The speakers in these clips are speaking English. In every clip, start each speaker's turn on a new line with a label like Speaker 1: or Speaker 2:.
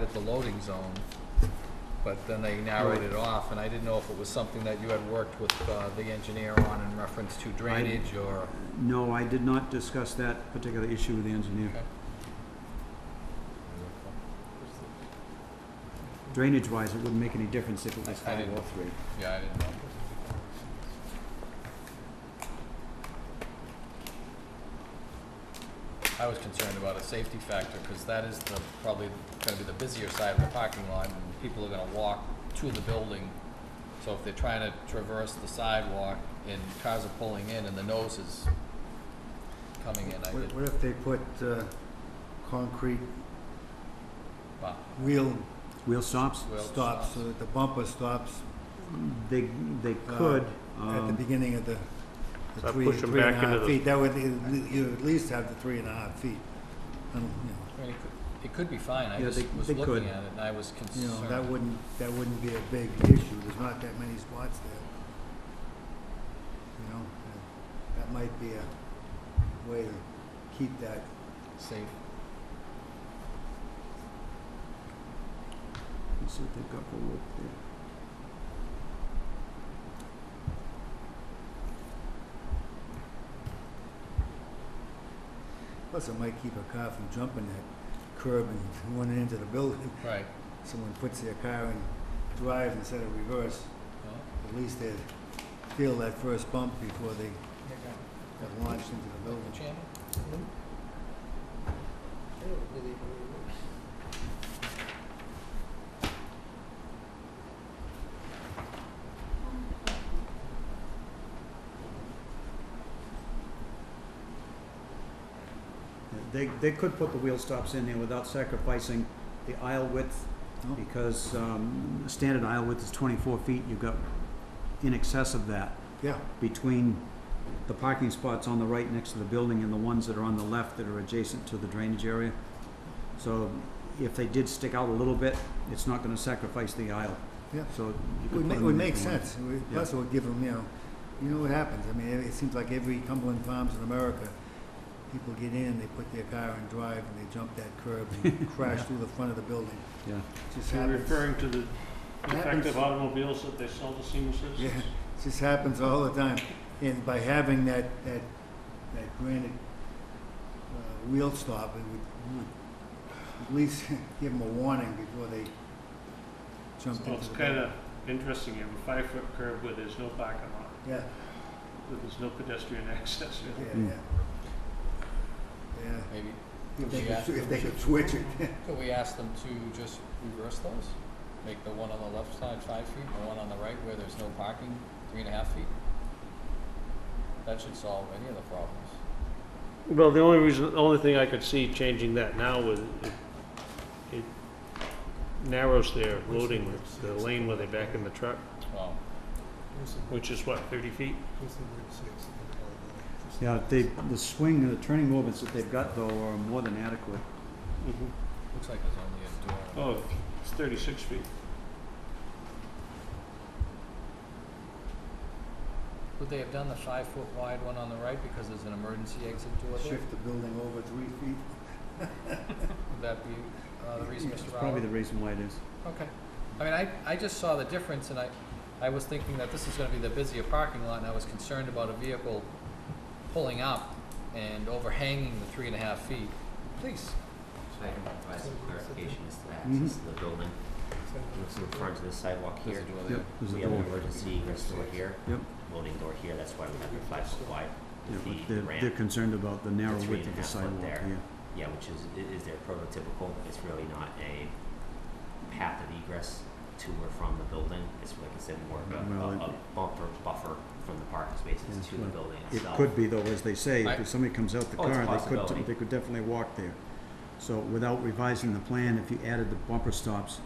Speaker 1: with the loading zone, but then they narrowed it off, and I didn't know if it was something that you had worked with uh, the engineer on in reference to drainage or...
Speaker 2: No, I did not discuss that particular issue with the engineer. Drainage-wise, it wouldn't make any difference if it was
Speaker 1: I- I
Speaker 2: five
Speaker 1: didn't-
Speaker 2: or three.
Speaker 1: Yeah, I didn't know. I was concerned about a safety factor, because that is the, probably gonna be the busier side of the parking lot, and people are gonna walk to the building. So if they're trying to traverse the sidewalk, and cars are pulling in, and the nose is coming in, I
Speaker 3: What
Speaker 1: did,
Speaker 3: what if they put uh, concrete
Speaker 1: wow.
Speaker 3: wheel
Speaker 2: Wheel stops,
Speaker 1: Wheel
Speaker 3: stops, so that the bumper stops
Speaker 2: they, they could,
Speaker 3: Uh, at the
Speaker 2: um,
Speaker 3: beginning of the the
Speaker 4: So
Speaker 3: three,
Speaker 4: push 'em
Speaker 3: three and a
Speaker 4: back into
Speaker 3: half
Speaker 4: the-
Speaker 3: feet. That would, you at least have the three and a half feet. I don't-
Speaker 1: I mean, it could- It could be fine, I
Speaker 2: Yeah,
Speaker 1: just
Speaker 2: they-
Speaker 1: was
Speaker 2: they could.
Speaker 1: looking at it, and I was
Speaker 3: You know, you know, that
Speaker 1: concerned.
Speaker 3: wouldn't, that wouldn't be a big issue. There's not that many spots there. You know, that- that might be a way to keep that
Speaker 1: Safe,
Speaker 2: let's see what they've got for wood there.
Speaker 3: Plus, it might keep a car from jumping that curb and running into the building.
Speaker 1: right.
Speaker 3: Someone puts their car in drive instead of reverse.
Speaker 1: Well,
Speaker 3: At least they feel that first bump before they got launched into the building.
Speaker 1: Mr. Chairman?
Speaker 2: They, they could put the wheel stops in there without sacrificing the aisle width,
Speaker 3: No?
Speaker 2: because, um, standard aisle width is twenty-four feet, you've got in excess of that
Speaker 3: Yeah,
Speaker 2: between the parking spots on the right next to the building and the ones that are on the left that are adjacent to the drainage area. So if they did stick out a little bit, it's not gonna sacrifice the aisle.
Speaker 3: Yeah.
Speaker 2: So you
Speaker 3: it
Speaker 2: could
Speaker 3: would
Speaker 2: put
Speaker 3: ma- it
Speaker 2: them
Speaker 3: would
Speaker 2: there
Speaker 3: make
Speaker 2: if you wanted.
Speaker 3: sense. It would- Plus, it would give them, you know, you know what happens. I mean, it it seems like every Cumberland Farms in America, people get in, they put their car in drive, and they jump that curb and crash through the front of the building.
Speaker 2: Yeah.
Speaker 3: It Just
Speaker 4: You're
Speaker 3: happens.
Speaker 4: referring to the
Speaker 3: Happens.
Speaker 4: defective automobiles that they sell to senior
Speaker 3: Yeah,
Speaker 4: citizens?
Speaker 3: it just happens all the time. And by having that, that, that granite uh, wheel stop, it would, would at least give them a warning before they jump
Speaker 4: Well,
Speaker 3: into
Speaker 4: it's
Speaker 3: the.
Speaker 4: kind of interesting, you have a five-foot curb where there's no parking lot,
Speaker 3: Yeah,
Speaker 4: where there's no pedestrian access.
Speaker 3: yeah,
Speaker 2: Mm.
Speaker 3: yeah. Yeah,
Speaker 1: Maybe,
Speaker 3: if they
Speaker 1: They ask
Speaker 3: could,
Speaker 1: them
Speaker 3: if they
Speaker 1: to-
Speaker 3: could switch it.
Speaker 1: Could we ask them to just reverse those? Make the one on the left side five feet, the one on the right where there's no parking, three and a half feet? That should solve any of the problems.
Speaker 4: Well, the only reason, the only thing I could see changing that now was it- it narrows their loading, with the lane where they back in the truck,
Speaker 1: Well,
Speaker 4: which is what, 30 feet?
Speaker 2: Yeah, they, the swing, the turning movements that they've got though are more than adequate.
Speaker 1: looks like there's only a door.
Speaker 4: Mm-hmm. Oh, it's 36 feet.
Speaker 1: Would they have done the five-foot wide one on the right because there's an emergency exit door there?
Speaker 3: Shift the building over three feet.
Speaker 1: Would that be uh, the reason,
Speaker 2: It's
Speaker 1: Mr. Rowley?
Speaker 2: probably the reason why it is.
Speaker 1: Okay. I mean, I, I just saw the difference and I, I was thinking that this is gonna be the busier parking lot and I was concerned about a vehicle pulling up and overhanging the three and a half feet. Please.
Speaker 5: So I can provide some clarification as to the
Speaker 2: Mhm.
Speaker 5: access to the building. Looks in front of the sidewalk
Speaker 1: There's
Speaker 5: here.
Speaker 1: a door there.
Speaker 2: Yep, there's
Speaker 5: We
Speaker 2: a
Speaker 5: have an
Speaker 2: door.
Speaker 5: emergency egress door here,
Speaker 2: Yep.
Speaker 5: loading door here, that's why we have the five foot wide.
Speaker 2: Yeah, but
Speaker 5: The
Speaker 2: they're, they're
Speaker 5: ramp,
Speaker 2: concerned about the narrow
Speaker 5: The three
Speaker 2: width of
Speaker 5: and
Speaker 2: the
Speaker 5: a half foot
Speaker 2: sidewalk,
Speaker 5: there.
Speaker 2: yeah.
Speaker 5: yeah, which is, i- is their prototypical, it's really not a path of egress to or from the building. It's like I said, more of a,
Speaker 2: Well,
Speaker 5: a-
Speaker 2: it-
Speaker 5: a bumper, buffer from the parking
Speaker 2: Yeah,
Speaker 5: spaces to the
Speaker 2: well,
Speaker 5: building
Speaker 2: It
Speaker 5: itself.
Speaker 2: could be though, as they say,
Speaker 1: I-
Speaker 2: if somebody comes out the
Speaker 5: Oh, it's
Speaker 2: car,
Speaker 5: a
Speaker 2: they
Speaker 5: possibility.
Speaker 2: could, they could definitely walk there. So without revising the plan, if you added the bumper stops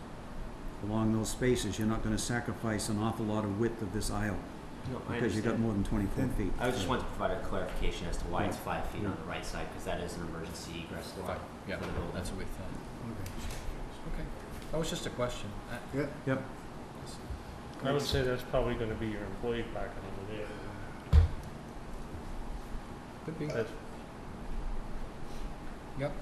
Speaker 2: along those spaces, you're not gonna sacrifice an awful lot of width of this aisle,
Speaker 5: No, I
Speaker 2: because you've got
Speaker 5: understand.
Speaker 2: more than twenty-four
Speaker 3: Then-
Speaker 2: feet.
Speaker 5: I just wanted to provide a clarification as to why it's
Speaker 2: Yeah.
Speaker 5: five feet on
Speaker 2: Yeah.
Speaker 5: the right side, because that is an emergency egress door
Speaker 1: Fine. Yeah,
Speaker 5: for the building.
Speaker 1: that's what we thought. Okay. That was just a question. I-
Speaker 3: Okay, yeah.
Speaker 2: Yep,
Speaker 4: I would say that's probably going to be your employee parking over there.
Speaker 1: Could be.
Speaker 4: Uh, That's-
Speaker 1: Yep.